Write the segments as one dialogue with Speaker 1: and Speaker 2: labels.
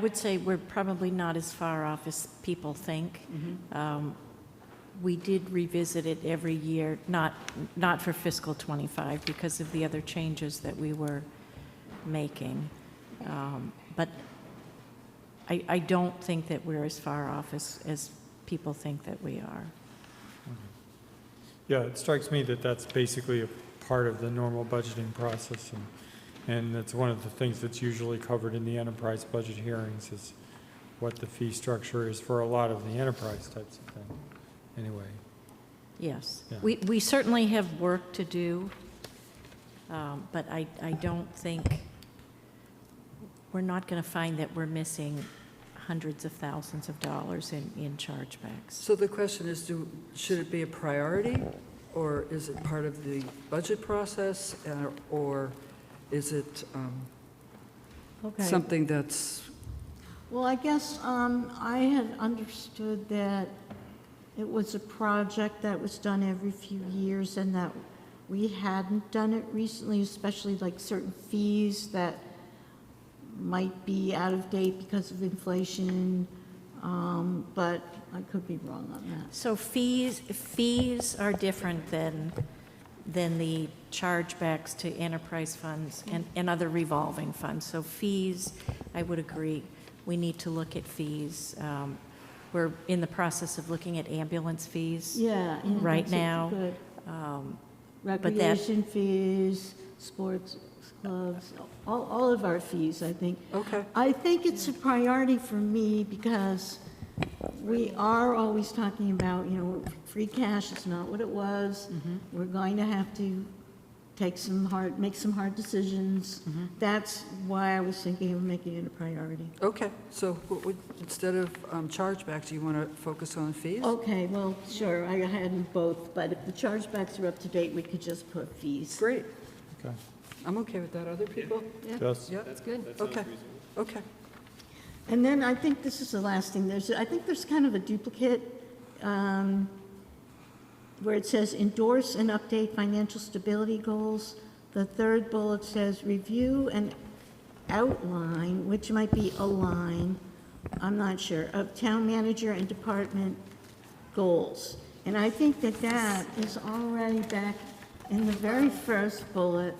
Speaker 1: I would say we're probably not as far off as people think. Um, We did revisit it every year, not, not for fiscal '25 because of the other changes that we were making. Um, But I, I don't think that we're as far off as, as people think that we are.
Speaker 2: Yeah, it strikes me that that's basically a part of the normal budgeting process, and, and that's one of the things that's usually covered in the enterprise budget hearings is what the fee structure is for a lot of the enterprise types of thing, anyway.
Speaker 1: Yes.
Speaker 2: Yeah.
Speaker 1: We, we certainly have work to do, um, but I, I don't think, we're not going to find that we're missing hundreds of thousands of dollars in, in chargebacks.
Speaker 3: So the question is, do, should it be a priority, or is it part of the budget process, uh, or is it um,
Speaker 1: Okay.
Speaker 3: something that's,
Speaker 4: Well, I guess um, I had understood that it was a project that was done every few years and that we hadn't done it recently, especially like certain fees that might be out of date because of inflation, um, but I could be wrong on that.
Speaker 1: So fees, fees are different than, than the chargebacks to enterprise funds and, and other revolving funds. So fees, I would agree, we need to look at fees. Um, We're in the process of looking at ambulance fees.
Speaker 4: Yeah. yeah,
Speaker 1: Right
Speaker 4: that's a
Speaker 1: now,
Speaker 4: good-
Speaker 1: Um, that-
Speaker 4: Recreation fees, sports clubs, all, all of our fees, I think.
Speaker 3: okay,
Speaker 4: I think it's a priority for me because we are always talking about, you know, free cash is not what it was. We're going to have to take some hard, make some hard decisions. That's why I was thinking of making it a priority.
Speaker 3: okay, so what would, instead of um, chargebacks, do you want to focus on fees?
Speaker 4: Okay, well, sure, I had them both, but if the chargebacks are up to date, we could just put fees.
Speaker 3: Great,
Speaker 2: Okay,
Speaker 3: I'm okay with that, other people?
Speaker 2: Jess?
Speaker 3: Yeah,
Speaker 5: That's good.
Speaker 3: okay, okay,
Speaker 4: And then I think this is the last thing, there's, I think there's kind of a duplicate um, where it says endorse and update financial stability goals. The third bullet says review and outline, which might be align, I'm not sure, of town manager and department goals. And I think that that is already back in the very first bullet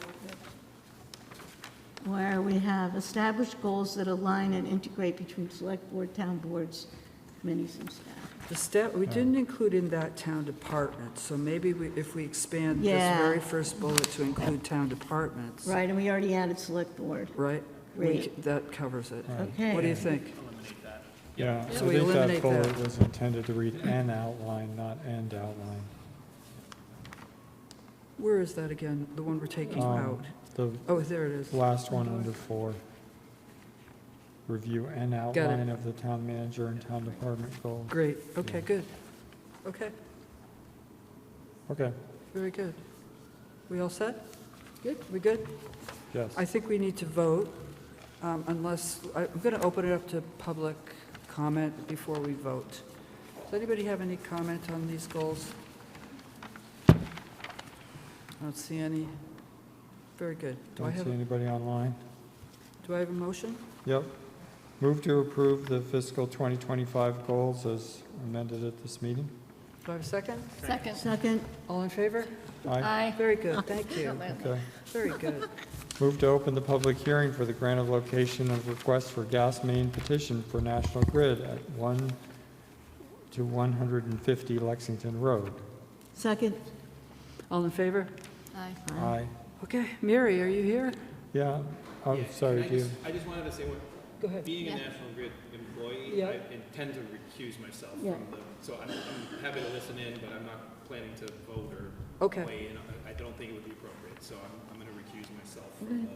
Speaker 4: where we have established goals that align and integrate between select board, town boards, committees, and staff.
Speaker 3: the step, we didn't include in that town department, so maybe we- if we expand this
Speaker 4: Yeah.
Speaker 3: very first bullet to include town departments,
Speaker 4: Right, and we already added select board.
Speaker 3: right? We
Speaker 4: Right.
Speaker 3: c- That covers it.
Speaker 4: Okay.
Speaker 3: What do you think?
Speaker 2: Yeah, I
Speaker 3: So we
Speaker 2: think that
Speaker 3: eliminate
Speaker 2: bullet
Speaker 3: that.
Speaker 2: was intended to read an outline, not end outline.
Speaker 3: Where is that again, the one we're taking
Speaker 2: Um,
Speaker 3: out?
Speaker 2: The
Speaker 3: Oh, there it is.
Speaker 2: last one under four. Review an
Speaker 3: it.
Speaker 2: outline of the town manager and town department goals.
Speaker 3: Great, okay,
Speaker 2: Yeah.
Speaker 3: good. Okay,
Speaker 2: Okay,
Speaker 3: very good. We all set? Good. We good?
Speaker 2: yes.
Speaker 3: I think we need to vote um, unless, I- I'm going to open it up to public comment before we vote. Does anybody have any comment on these goals? I don't see any. Very good. Do I
Speaker 2: Don't
Speaker 3: have,
Speaker 2: see anybody online.
Speaker 3: do I have a motion?
Speaker 2: Yep. Move to approve the fiscal 2025 goals as amended at this meeting.
Speaker 3: Do I have a second?
Speaker 5: Second.
Speaker 4: Second,
Speaker 3: All in favor?
Speaker 2: Aye.
Speaker 5: Aye.
Speaker 3: Very good, thank you.
Speaker 2: Okay.
Speaker 3: Very good.
Speaker 2: Move to open the public hearing for the grant of location of request for gas main petition for National Grid at 1 to 150 Lexington Road.
Speaker 4: second.
Speaker 3: All in favor?
Speaker 5: Aye.
Speaker 2: Aye.
Speaker 3: Okay, Mary, are you here?
Speaker 2: Yeah, I'm
Speaker 6: Yeah,
Speaker 2: sorry,
Speaker 6: I
Speaker 2: do you?
Speaker 6: just- I just wanted to say, one-
Speaker 3: Go ahead.
Speaker 6: being a
Speaker 5: Yeah.
Speaker 6: National Grid employee,
Speaker 3: Yeah.
Speaker 6: I intend to recuse myself
Speaker 4: Yeah.
Speaker 6: from the, so I'm, I'm happy to listen in, but I'm not planning to vote or
Speaker 3: Okay.
Speaker 6: weigh in. I- I don't think it would be appropriate, so I'm, I'm gonna recuse myself from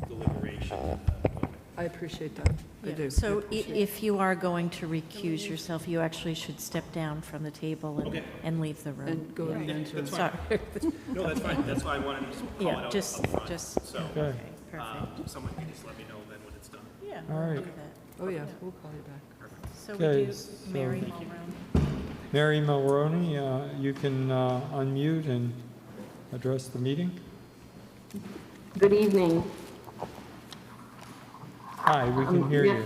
Speaker 6: the deliberation. and the voting.
Speaker 3: I appreciate that. I
Speaker 1: Yeah,
Speaker 3: do.
Speaker 1: So i- if you are going to recuse yourself, you actually should step down from the table and,
Speaker 6: Okay.
Speaker 1: and leave the room.
Speaker 3: And go
Speaker 1: Yeah.
Speaker 3: into it.
Speaker 1: Sorry,
Speaker 6: No, that's fine, that's why I wanted to just call it
Speaker 1: yeah,
Speaker 6: out
Speaker 1: just,
Speaker 6: upfront.
Speaker 1: just,
Speaker 6: So,
Speaker 2: Okay,
Speaker 1: okay, perfect.
Speaker 6: um, someone can just let me know then when it's done.
Speaker 1: Yeah.
Speaker 2: All
Speaker 1: we'll
Speaker 2: right.
Speaker 1: do that.
Speaker 3: Oh, yeah, we'll call you back.
Speaker 1: So
Speaker 2: Okay,
Speaker 1: we do
Speaker 2: so-
Speaker 1: Mary Mulroon.
Speaker 2: Mary Mulroney, uh, you can uh, unmute and address the meeting.
Speaker 7: Good evening.
Speaker 2: Hi, we can hear you.